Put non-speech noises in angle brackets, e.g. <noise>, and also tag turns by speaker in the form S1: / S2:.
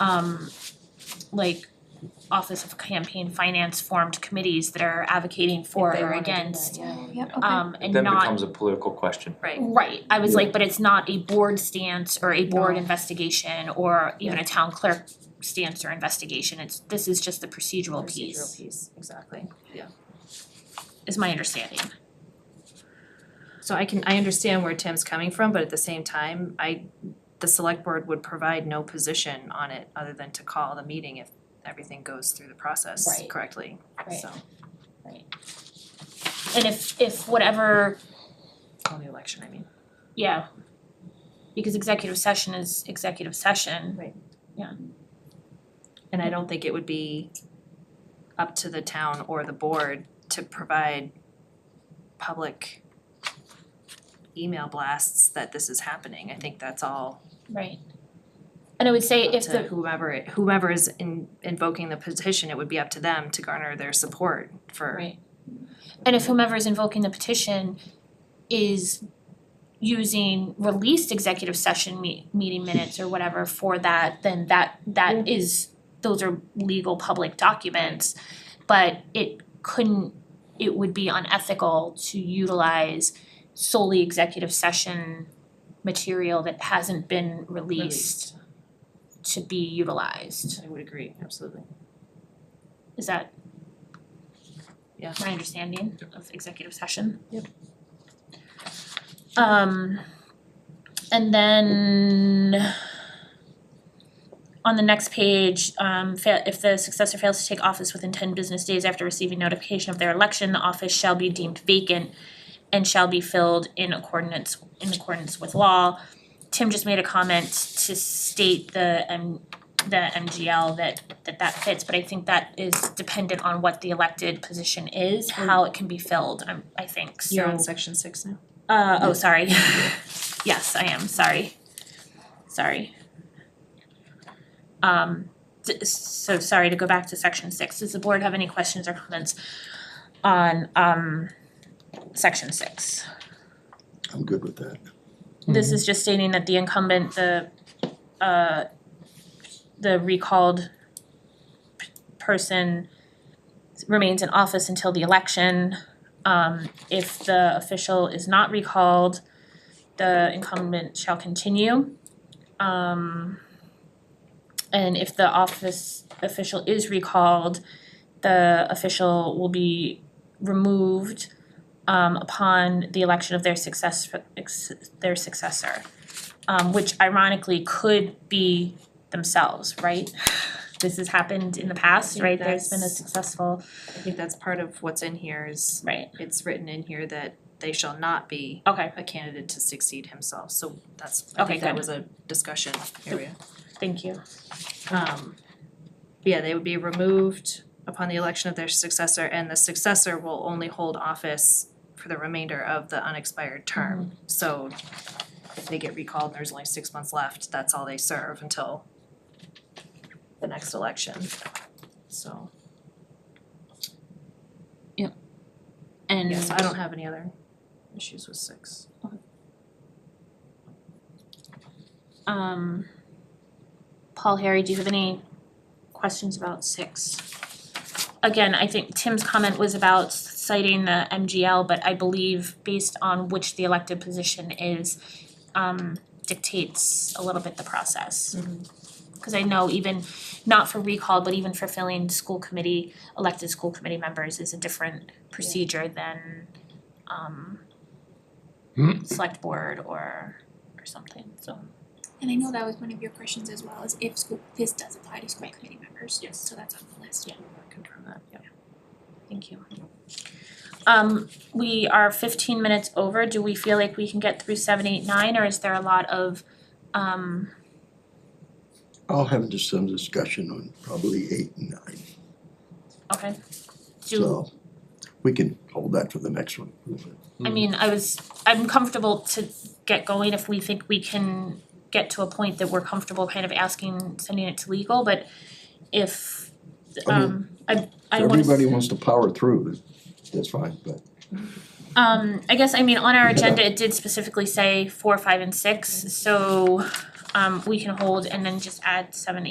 S1: um like Office of Campaign Finance formed committees that are advocating for or against.
S2: Yep,
S1: Um and
S3: Then
S1: not
S3: becomes a political question.
S2: right.
S1: Right, I was like, but it's not a board stance or a board investigation or even a town clerk stance or investigation, it's, this is just the procedural
S2: Procedural
S1: piece,
S2: piece, exactly.
S1: is my understanding.
S2: So I can, I understand where Tim's coming from, but at the same time, I, the select board would provide no position on it other than to call the meeting if everything goes through the process
S1: Right.
S2: correctly,
S1: Right.
S2: so,
S1: And if if whatever,
S2: on the election, I mean.
S1: yeah, because executive session is executive session,
S2: And I don't think it would be up to the town or the board to provide public email blasts that this is happening. I think that's all
S1: right? And I would say
S2: up
S1: if
S2: to
S1: the,
S2: whomever, whomever is in invoking the petition, it would be up to them to garner their support for
S1: right, and if whomever is invoking the petition is using released executive session me- meeting minutes or whatever for that, then that that is, those are legal public documents. But it couldn't, it would be unethical to utilize solely executive session material that hasn't been released
S2: released.
S1: to be utilized.
S2: I would agree, absolutely.
S1: Is that
S2: Yeah.
S1: my understanding of executive session?
S2: Yep.
S1: Um, and then on the next page, um, fa- if the successor fails to take office within ten business days after receiving notification of their election, the office shall be deemed vacant and shall be filled in accordance, in accordance with law. Tim just made a comment to state the um, the MGL that that that fits, but I think that is dependent on what the elected position is, how it can be filled, um, I think, so.
S2: You're on section six now?
S1: Uh, oh, sorry. <laughs> Yes, I am, sorry. Sorry. Um, d- so sorry to go back to section six. Does the board have any questions or comments on, um, section six?
S4: I'm good with that.
S1: This is just stating that the incumbent, the, uh, the recalled p- person remains in office until the election. Um, if the official is not recalled, the incumbent shall continue. Um, and if the office official is recalled, the official will be removed um upon the election of their success ex- their successor. Um which ironically could be themselves, right? <laughs> This has happened in the past,
S2: think
S1: right? There's been a
S2: that's-
S1: successful,
S2: I think that's part of what's in here is,
S1: right,
S2: it's written in here that they shall not be
S1: okay,
S2: a candidate to succeed himself, so that's, I
S1: Okay,
S2: think that
S1: good.
S2: was a discussion area.
S1: thank you.
S2: Um, yeah, they would be removed upon the election of their successor, and the successor will only hold office for the remainder of the unexpired term. So if they get recalled, and there's only six months left, that's all they serve until the next election, so,
S1: And
S2: yes, I don't have any other issues with six.
S1: um Paul, Harry, do you have any questions about six? Again, I think Tim's comment was about citing the MGL, but I believe based on which the elected position is um dictates a little bit the process. Cause I know even not for recall, but even for filling school committee, elected school committee members is a different procedure than um select board or or something, so.
S5: And I know that was one of your questions as well, is if school, this does apply to school committee members.
S2: Yes.
S5: So that's on the list.
S2: Confirm that, yeah.
S1: Thank you. Um, we are fifteen minutes over, do we feel like we can get through seven, eight, nine, or is there a lot of, um,
S4: I'll have just some discussion on probably eight and nine,
S1: okay? Do,
S4: so we can hold that for the next one. mm.
S1: I mean, I was, I'm comfortable to get going if we think we can get to a point that we're comfortable kind of asking, sending it to legal, but if,
S4: I mean,
S1: um, I, I
S4: If
S1: wanna.
S4: everybody wants to power through, that's fine, but
S1: Um, I guess, I mean, on our
S4: Yeah.
S1: agenda, it did specifically say four, five, and six, so, um, we can hold and then just add seven,